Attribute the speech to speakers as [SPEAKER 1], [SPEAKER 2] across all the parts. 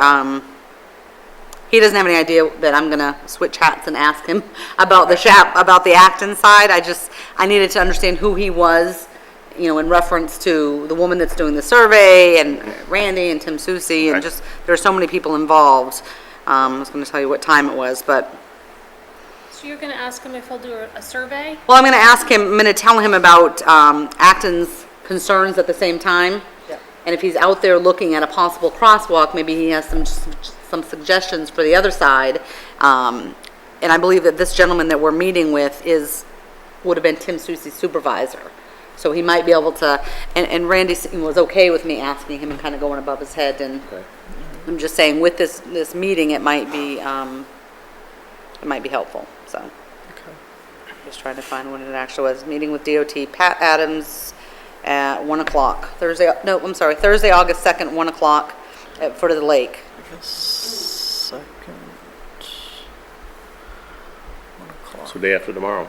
[SPEAKER 1] um, he doesn't have any idea that I'm gonna switch hats and ask him about the chap, about the Acton side. I just, I needed to understand who he was, you know, in reference to the woman that's doing the survey and Randy and Tim Susi and
[SPEAKER 2] Right.
[SPEAKER 1] just, there are so many people involved. Um, I was gonna tell you what time it was, but,
[SPEAKER 3] So you're gonna ask him if he'll do a- a survey?
[SPEAKER 1] well, I'm gonna ask him, I'm gonna tell him about, um, Acton's concerns at the same time. And if he's out there looking at a possible crosswalk, maybe he has some, some suggestions for the other side. Um, and I believe that this gentleman that we're meeting with is, would have been Tim Susi's supervisor. So he might be able to, and, and Randy was okay with me asking him and kind of going above his head and I'm just saying with this, this meeting, it might be, um, it might be helpful, so. Just trying to find when it actually was. Meeting with DOT, Pat Adams at 1 o'clock, Thursday, no, I'm sorry, Thursday, August 2nd, 1 o'clock at foot of the lake.
[SPEAKER 4] Second. One o'clock.
[SPEAKER 2] So day after tomorrow.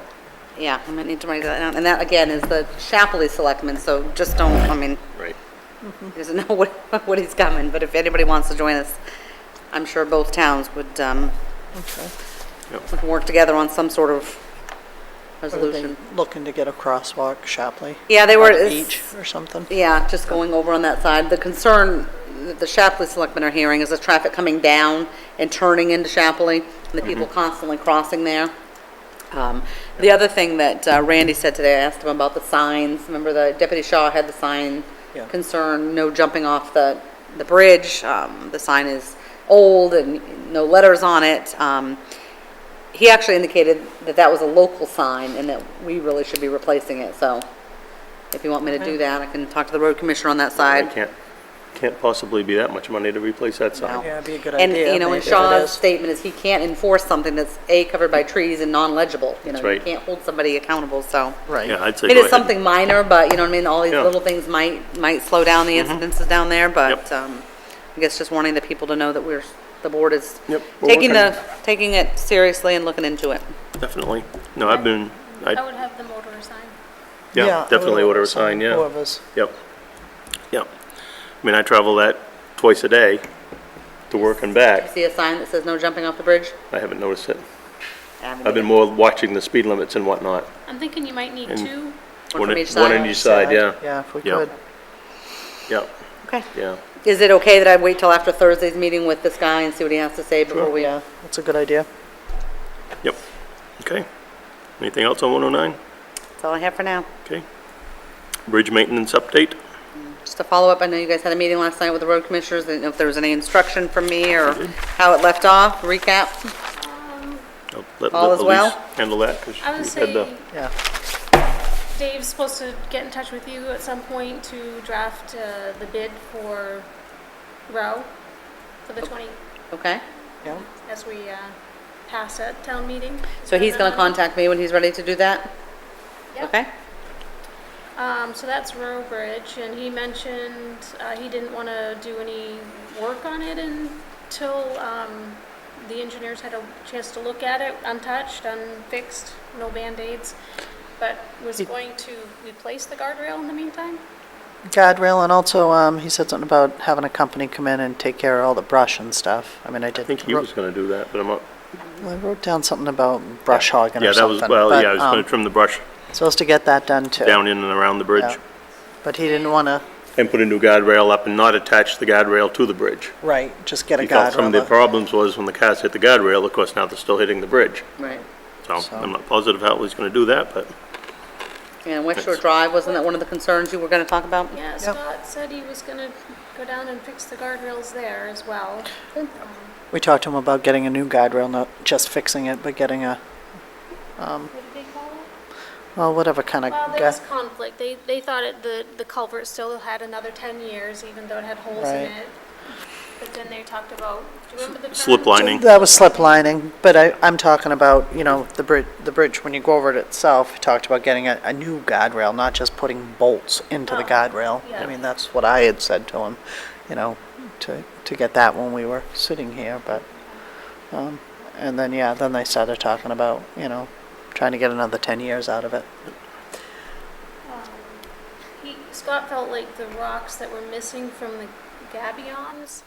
[SPEAKER 1] Yeah, I might need to write that down. And that, again, is the Chapley Selectmen, so just don't, I mean,
[SPEAKER 2] Right.
[SPEAKER 1] he doesn't know what, what he's coming, but if anybody wants to join us, I'm sure both towns would, um,
[SPEAKER 4] Okay.
[SPEAKER 1] we can work together on some sort of
[SPEAKER 4] Are they
[SPEAKER 1] resolution.
[SPEAKER 4] Looking to get a crosswalk, Shapley.
[SPEAKER 1] Yeah, they were-
[SPEAKER 4] At the
[SPEAKER 1] it's-
[SPEAKER 4] Beach or something.
[SPEAKER 1] Yeah, just going over on that side. The concern that the Shapley Selectmen are hearing is the traffic coming down and turning into Shapley, and the people constantly crossing there. Um, The other thing that uh, Randy said today, I asked him about the signs. Remember the Deputy Shaw had the sign
[SPEAKER 4] Yeah.
[SPEAKER 1] concern, no jumping off the, the bridge. Um, The sign is old and no letters on it. Um, He actually indicated that that was a local sign and that we really should be replacing it, so if you want me to do that, I can talk to the road commissioner on that
[SPEAKER 2] I
[SPEAKER 1] side.
[SPEAKER 2] can't, can't possibly be that much money to replace that
[SPEAKER 1] No.
[SPEAKER 2] sign.
[SPEAKER 4] Yeah, it'd be a good
[SPEAKER 1] And,
[SPEAKER 4] idea,
[SPEAKER 1] you know,
[SPEAKER 4] maybe,
[SPEAKER 1] and
[SPEAKER 4] if it
[SPEAKER 1] Shaw's
[SPEAKER 4] is.
[SPEAKER 1] statement is he can't enforce something that's, A, covered by trees and non-legible. You know,
[SPEAKER 2] That's
[SPEAKER 1] you
[SPEAKER 2] right.
[SPEAKER 1] can't hold somebody accountable, so.
[SPEAKER 4] Right.
[SPEAKER 2] Yeah, I'd say
[SPEAKER 1] It
[SPEAKER 2] go
[SPEAKER 1] is
[SPEAKER 2] ahead.
[SPEAKER 1] something minor, but, you know what I mean, all these
[SPEAKER 2] Yeah. Mm-hmm.
[SPEAKER 1] little things might, might slow down the incidences down there, but,
[SPEAKER 2] Yep.
[SPEAKER 1] um, I guess just wanting the people to know that we're, the board is
[SPEAKER 2] Yep, we're
[SPEAKER 1] taking
[SPEAKER 2] working.
[SPEAKER 1] the, taking it seriously and looking into it.
[SPEAKER 2] Definitely. No, I've been,
[SPEAKER 3] I
[SPEAKER 2] I,
[SPEAKER 3] would have the motor sign.
[SPEAKER 4] Yeah, I
[SPEAKER 2] yeah,
[SPEAKER 4] would
[SPEAKER 2] definitely
[SPEAKER 4] hope
[SPEAKER 2] order a
[SPEAKER 4] so,
[SPEAKER 2] sign, yeah.
[SPEAKER 4] Whoever's,
[SPEAKER 2] Yep. Yep. I mean, I travel that twice a day to work and back.
[SPEAKER 1] See a sign that says no jumping off the bridge?
[SPEAKER 2] I haven't noticed it.
[SPEAKER 1] Yeah, I'm
[SPEAKER 2] I've been more watching the speed limits and whatnot.
[SPEAKER 3] I'm thinking you might need
[SPEAKER 2] And-
[SPEAKER 3] two.
[SPEAKER 1] One from
[SPEAKER 2] in-
[SPEAKER 1] each
[SPEAKER 2] One
[SPEAKER 1] side.
[SPEAKER 2] on each side, yeah.
[SPEAKER 4] yeah, if we
[SPEAKER 2] Yeah.
[SPEAKER 4] could.
[SPEAKER 2] Yep,
[SPEAKER 1] Okay.
[SPEAKER 2] yeah.
[SPEAKER 1] Is it okay that I wait till after Thursday's meeting with this guy and see what he has to say before
[SPEAKER 2] Sure.
[SPEAKER 1] we, uh,
[SPEAKER 4] Yeah, that's a good idea.
[SPEAKER 2] Yep. Okay. Anything else on 109?
[SPEAKER 1] that's all I have for now.
[SPEAKER 2] Okay. Bridge maintenance update?
[SPEAKER 1] Just a follow-up, I know you guys had a meeting last night with the road commissioners, I didn't know if there was any instruction from me or
[SPEAKER 2] Mm-hmm.
[SPEAKER 1] how it left off, recap.
[SPEAKER 2] I'll let-
[SPEAKER 1] All
[SPEAKER 2] let
[SPEAKER 1] is well?
[SPEAKER 2] Elise Handle that, because
[SPEAKER 3] I would
[SPEAKER 2] you had the,
[SPEAKER 3] say
[SPEAKER 4] Yeah,
[SPEAKER 3] Dave's supposed to get in touch with you at some point to draft uh, the bid for Row for the
[SPEAKER 2] Oh.
[SPEAKER 3] 20,
[SPEAKER 1] Okay,
[SPEAKER 4] yeah.
[SPEAKER 3] as we uh, pass at town meeting.
[SPEAKER 1] so he's gonna contact me when he's ready to do that?
[SPEAKER 3] Yep.
[SPEAKER 1] Okay,
[SPEAKER 3] Um, so that's Row Bridge, and he mentioned, uh, he didn't wanna do any work on it until, um, the engineers had a chance to look at it, untouched, unfixed, no Band-Aids, but was going to replace the guardrail in the meantime?
[SPEAKER 4] Guardrail, and also, um, he said something about having a company come in and take care of all the brush and stuff. I mean, I did.
[SPEAKER 2] I think he was going to do that, but I'm not.
[SPEAKER 4] I wrote down something about brush hogging
[SPEAKER 2] Yeah,
[SPEAKER 4] or
[SPEAKER 2] that was,
[SPEAKER 4] something.
[SPEAKER 2] well,
[SPEAKER 4] but,
[SPEAKER 2] yeah, I was going
[SPEAKER 4] um,
[SPEAKER 2] to trim the brush
[SPEAKER 4] Supposed to get that done too.
[SPEAKER 2] down in and around the bridge
[SPEAKER 4] Yeah. But he didn't want to,
[SPEAKER 2] and put a new guardrail up and not attach the guardrail to the bridge.
[SPEAKER 4] right, just get a
[SPEAKER 2] He felt some of the
[SPEAKER 4] guardrail. up.
[SPEAKER 2] problems was when the cars hit the guardrail, of course, now they're still hitting the bridge.
[SPEAKER 1] right.
[SPEAKER 2] So
[SPEAKER 4] So-
[SPEAKER 2] I'm not positive how he's going to do that, but
[SPEAKER 1] And West Shore Drive, wasn't that one of the concerns you were gonna talk about?
[SPEAKER 3] Yeah, Scott said he was gonna go down and fix the guardrails there as well.
[SPEAKER 4] We talked to him about getting a new guardrail, not just fixing it, but getting a,
[SPEAKER 3] What did they call it?
[SPEAKER 4] well, whatever kind of,
[SPEAKER 3] Well, there was conflict. They, they thought it, the, the culvert still had another ten years, even though it had holes in
[SPEAKER 4] Right.
[SPEAKER 3] it. But then they talked about, do you remember the term?
[SPEAKER 2] slip lining.
[SPEAKER 4] that was slip lining, but I, I'm talking about, you know, the bridge, the bridge, when you go over it itself, we talked about getting a, a new guardrail, not just putting bolts into the
[SPEAKER 3] Oh,
[SPEAKER 4] guardrail. I
[SPEAKER 3] yeah.
[SPEAKER 4] mean, that's what I had said to him, you know, to, to get that when we were sitting here, but, um, and then, yeah, then they started talking about, you know, trying to get another ten years out of it.
[SPEAKER 3] He, Scott felt like the rocks that were missing from the gabions